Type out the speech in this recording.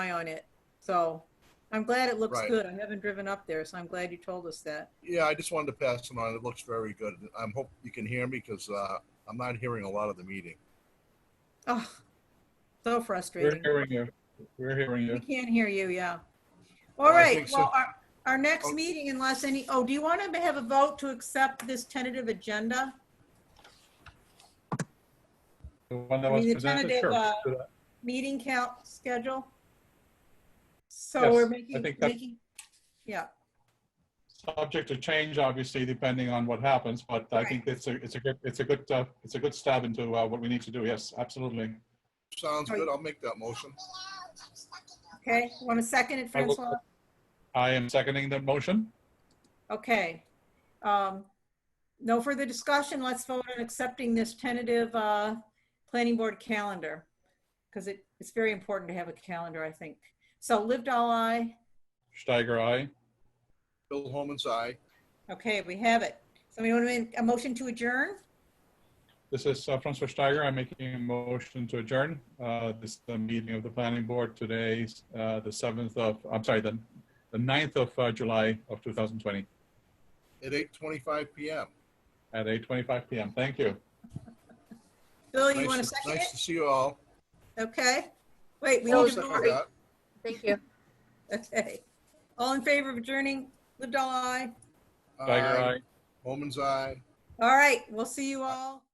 eye on it. So I'm glad it looks Right. good. I haven't driven up there, so I'm glad you told us that. Yeah, I just wanted to pass it on. It looks very good. I'm hope you can hear me because uh, I'm not hearing a lot of the meeting. Oh, so We're frustrating. hearing you. We're hearing We you. can't hear you, yeah. All I right, think so. well, our, our next Oh. meeting unless any, oh, do you want to have a vote to accept this tentative agenda? The one that I mean, was the presented, tentative, sure. uh, Meeting count schedule? So Yes, we're I making, think that- making, yeah, Subject to change, obviously, depending on what happens, but I think it's a, it's a good, it's a good, uh, it's a good stab into uh, what we need to do. Yes, absolutely. Sounds Are you- good. I'll make that motion. okay. Want to second it, I will- Francois? I am seconding the motion. Okay. Um, No further discussion. Let's vote on accepting this tentative uh, planning board calendar. Because it, it's very important to have a calendar, I think. So lived all I, Steiger, aye. Bill Holman's aye. okay, we have it. Somebody want to make a motion to adjourn? This is uh, Francois Steiger. I'm making a motion to adjourn. Uh, This is the meeting of the planning board today, uh, the 7th of, I'm sorry, the, the 9th of uh, July of 2020 at 8:25 p.m. at 8:25 PM. Thank you. Bill, Oh, you Nice want to to- second Nice it? to see you all. Okay. Wait, we I'll need to second vote. that. Thank you. Okay. All in favor of adjourning? Lived all I? Steiger, Aye. aye. Holman's aye. All right, we'll see you all.